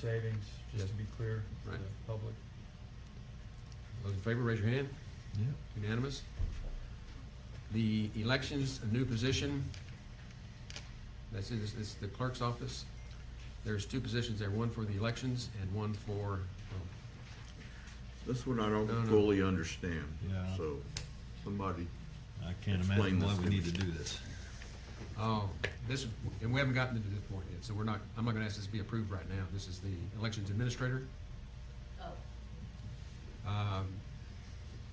savings, just to be clear for the Right. public. Those in favor, raise your hand. Unanimous. The elections, a new position, that's in, it's the clerk's office. There's two positions there, one for the elections and one for, oh, This one I No, don't no. fully understand, Yeah. so somebody, I can't Explain imagine why this we to need me. to do this. oh, this, and we haven't gotten to this point yet, so we're not, I'm not gonna ask this to be approved right now. This is the elections administrator. Oh, Um,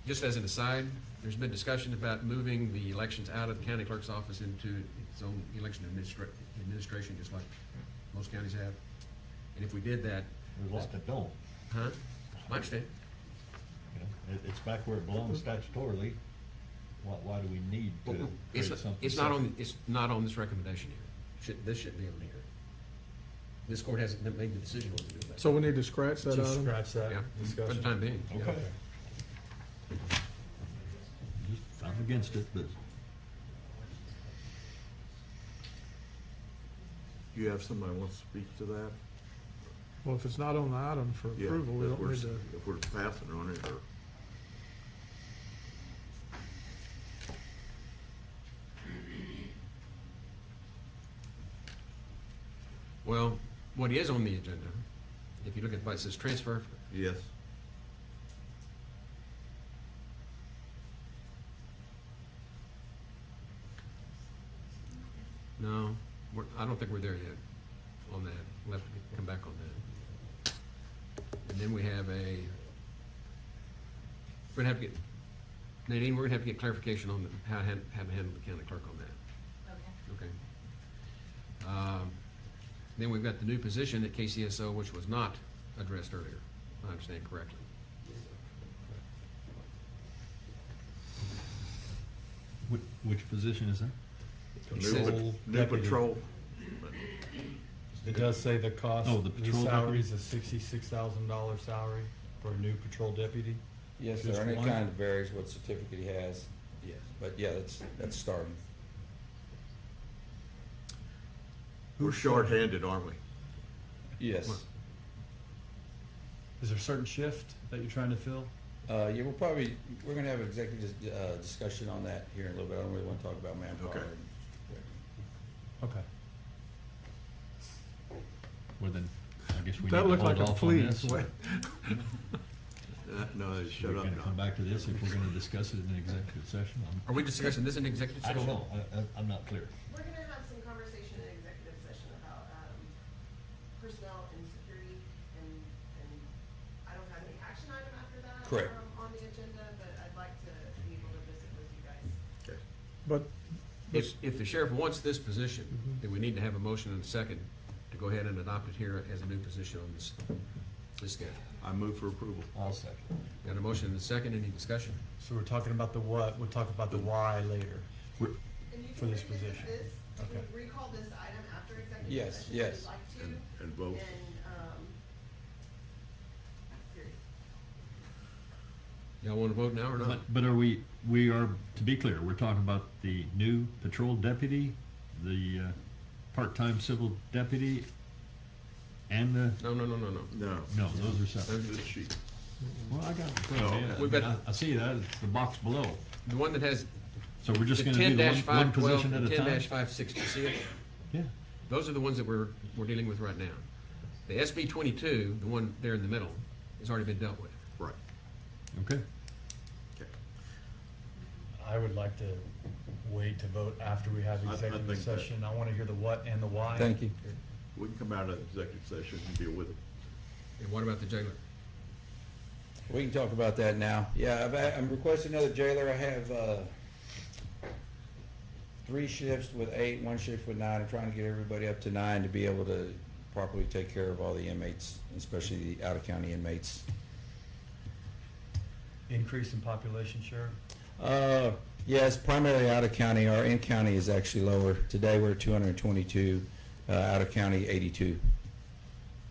Just as an aside, there's been discussion about moving the elections out of the county clerk's office into its own election administra- administration, just like most counties have. And if we did that, There's lots that don't. huh? I understand. you know. It, it's back where it belongs statutorily. Why, why do we need But to create It's, something? it's not separate? on, it's not on this recommendation here. Should, this shouldn't be on here. This court hasn't made the decision what to do with that. So we need to scratch that Just item? scratch that Yeah, for the discussion. time being. Yeah, Okay. Just- I'm against it, but do you have somebody who wants to speak to that? Well, if it's not on the item for Yeah, approval, we if don't we're- need to, If we're passing on it, or, Well, what is on the agenda, if you look at, it it says transfer yes, No, we're, I don't think we're there yet on that. We'll have to come back on that. And then we have a, we're gonna have to get, Nadine, we're gonna have to get clarification on the- how, to han- how to handle the county clerk on that, okay. okay? Um, Then we've got the new position at KCSO, which was not addressed earlier, if I understand correctly. which, which position is that? new, says- pat- new patrol, It does say the cost, Oh, the the patrol salary deputy? is a sixty-six thousand dollar salary for a new patrol deputy. Yes, sir, Just and it one? kind of varies what certificate he has, Yes. but yeah, that's, that's starting. we're shorthanded, aren't we? What? Yes, Is there a certain shift that you're trying to fill? uh, yeah, we'll probably, we're gonna have an executive, uh, discussion on that here in a little bit, I don't really wanna talk about manpower. Okay. Okay. Well, then, I guess we need to that hold looked like a off on this. please. Wait, Uh, No, shut We're up gonna come now. back to this if we're gonna discuss it in an executive session. I'm- Are we discussing this in executive I session? don't know. I, I, I'm not clear. We're gonna have some conversation in executive session about, um, personnel and security, and, and I don't have any action item after that. Correct. um, On the agenda, but I'd like to be able to visit with you guys. Okay. But If, if the sheriff wants this position, then we need to have a motion and a second to go ahead and adopt it here as a new position on this, this schedule. I move for approval. I'll second. Got a motion and a second, any discussion? So we're talking about the what, we'll talk about the why later. And you For can this revisit position. this, you can Okay. recall this item after executive Yes, session if yes. you'd like to, And, and vote, and, um, period. Y'all wanna vote now or not? But, but are we, we are, to be clear, we're talking about the new patrol deputy, the uh, part-time civil deputy, and the, No, no, no, no, no. no, no, those are separate. the sheet, Well, I got it. in front Oh, of me. okay. We've got- I I see that, it's the box below. The one that has So we're just gonna do ten the one, dash one five twelve position at and a ten time? dash five sixty, see it? Yeah, Those are the ones that we're, we're dealing with right now. The SB twenty-two, the one there in the middle, has already been dealt with. right, okay. okay. I would like to wait to vote after we have I- I executive think that- session. I wanna hear the what and the why. Thank you. We can come out of executive session and deal with it. And what about the jailer? We can talk about that now. Yeah, I've, I'm requesting another jailer. I have, uh, three shifts with eight, one shift with nine. I'm trying to get everybody up to nine to be able to properly take care of all the inmates, especially the out-of-county inmates. Increase in population, Sheriff? Uh, yes, primarily out of county. Our in county is actually lower. Today, we're two hundred and twenty-two, uh, out of county, eighty-two.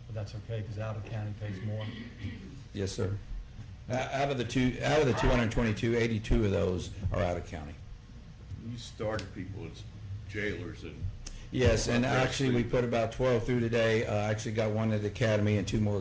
But that's okay, cause out of county pays more. Yes, sir. O- Out of the two, out of the two hundred and twenty-two, eighty-two of those are out of county. You started people as jailers and Yes, and actually, we put about twelve through today. Uh, I actually got one at the academy and two more